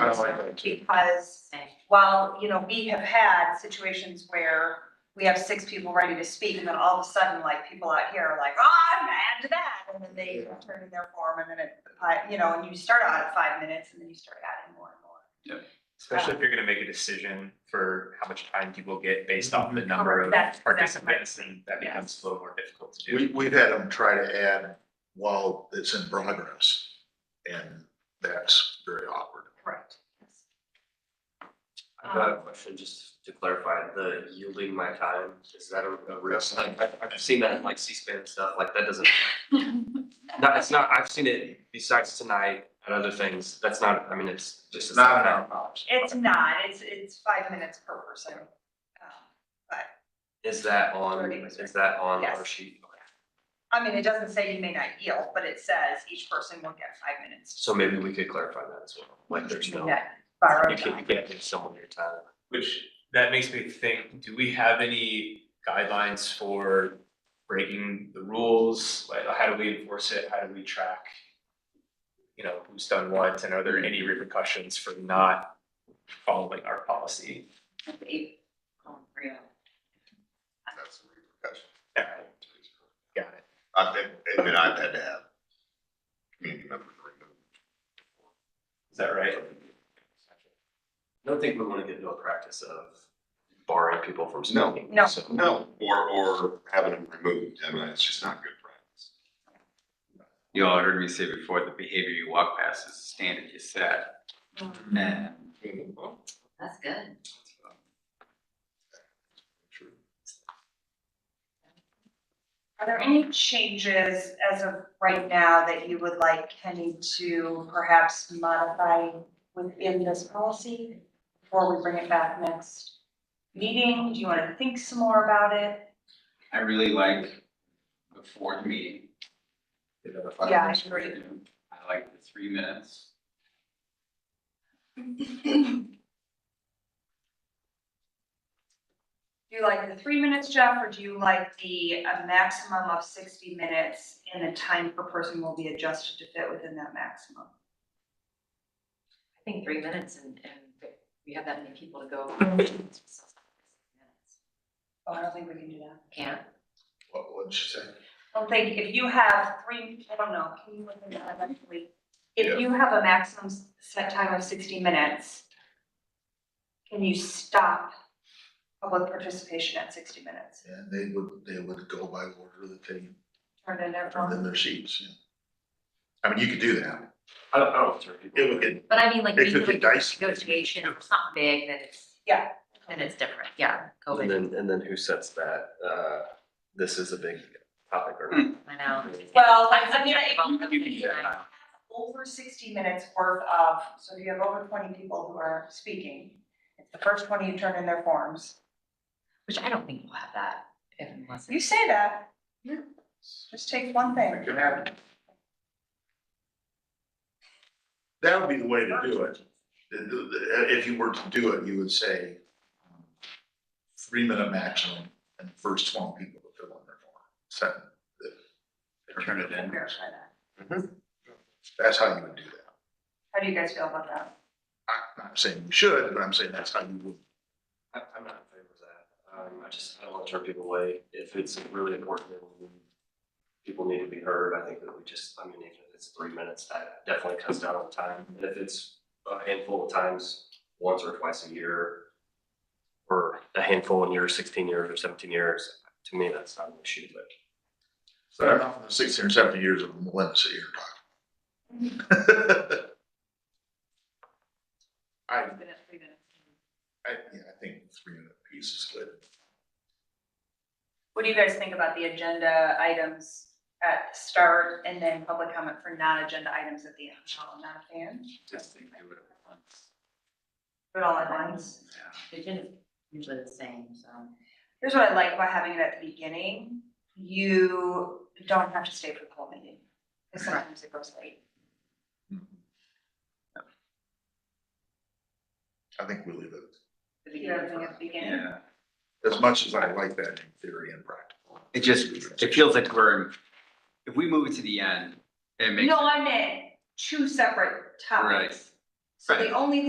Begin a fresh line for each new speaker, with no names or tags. I like that too.
Because while, you know, we have had situations where we have six people ready to speak and then all of a sudden, like, people out here are like, oh, I'm mad to that. And then they turn in their form and then it, I- you know, and you start out at five minutes and then you start adding more and more.
Especially if you're gonna make a decision for how much time people get based off the number
Correct.
of
That's- that's what I-
participants, and that
yes.
becomes a little more difficult to do.
We, we've had them try to add while it's in progress, and that's very awkward.
Correct.
I've
Um,
got a question, just to clarify, the yielding my time, is that a, a real
That's
thing? I've, I've seen that in like C-SPAN and stuff, like that doesn't. No, it's not, I've seen it besides tonight and other things, that's not, I mean, it's just.
It's not in our policy.
It's not, it's, it's five minutes per person. Um, But,
Is that on,
Already was
is that on
Yes.
our sheet? Okay.
I mean, it doesn't say you may not yield, but it says each person will get five minutes.
So maybe we could clarify that as well, like there's no,
Yeah, borrow
you can't, you
time.
can't give someone your time.
Which, that makes me think, do we have any guidelines for breaking the rules? Like, how do we enforce it? How do we track? You know, who's done what, and are there any repercussions for not following our policy?
um, oh.
That's the repercussion.
Alright, Got it.
I've been, I mean, I've had to have community members removed.
Is that right?
I don't think we want to get into a practice of barring people from
No.
speaking.
No.
so-
No, or, or having them removed, I mean, it's just not good practice.
You all heard me say before, the behavior you walk past is the standard you set. And
That's good.
Are there any changes as of right now that you would like Kenny to perhaps modify within this policy? Before we bring it back next meeting, do you wanna think some more about it?
I really like the fourth meeting. They have a five
Yeah, I
minutes
agree.
review. I like the three minutes.
Do you like the three minutes, Jeff, or do you like the a maximum of sixty minutes and the time per person will be adjusted to fit within that maximum?
I think three minutes and, and we have that many people to go.
Oh, I don't think we can do that.
Can't.
What, what'd she say?
I don't think, if you have three, I don't know, can you look at that eventually? If
Yeah.
you have a maximum s- set time of sixty minutes, can you stop public participation at sixty minutes?
And they would, they would go by order that they
Turn it
turned in
over.
their sheets, yeah. I mean, you could do that.
I don't, I don't. deter people.
It would get,
But I mean, like,
It
we
could
do
be
like
dicey.
negotiation, if it's not big, then it's,
Yeah.
then it's different, yeah,
And
COVID,
then, and then who sets that, uh, this is a big topic or
I know.
Well,
I'm
I mean,
subjective on
I-
the meeting.
Over sixty minutes worth of, so if you have over twenty people who are speaking, it's the first twenty you turn in their forms.
Which I don't think we'll have that if unless.
You say that.
Yeah.
Just take one thing.
it could happen. That would be the way to do it. The- the- If you were to do it, you would say um, three minute maximum and first twelve people to fill in their form. Send the-
Turn it in.
Verify that.
That's how you would do that.
How do you guys feel about that?
I'm not saying you should, but I'm saying that's how you would.
I, I'm not in favor of that. Um, I just, I don't want to turn people away. If it's really important and people need to be heard, I think that we just, I mean, even if it's three minutes, that definitely cuts down on time. And if it's a handful of times, once or twice a year, or a handful in year sixteen years or seventeen years, to me, that's not an issue, but.
Start off with sixty or seventy years of millennials that you're talking. I, I,
Minutes, three minutes.
yeah, I think three minute piece is good.
What do you guys think about the agenda items at the start and then public comment for non-agenda items at the end? Oh, I'm not a fan,
Just think they would have once.
do it all at once.
The agenda's usually the same, so.
Here's what I like about having it at the beginning, you don't have to stay for the whole meeting, because sometimes it goes late.
I think we leave it,
the
You know, everything
beginning.
at the beginning.
Yeah,
as much as I like that in theory and practice.
it just, it feels like we're, if we move it to the end, it makes.
No, I meant two separate topics. So the
Right.
only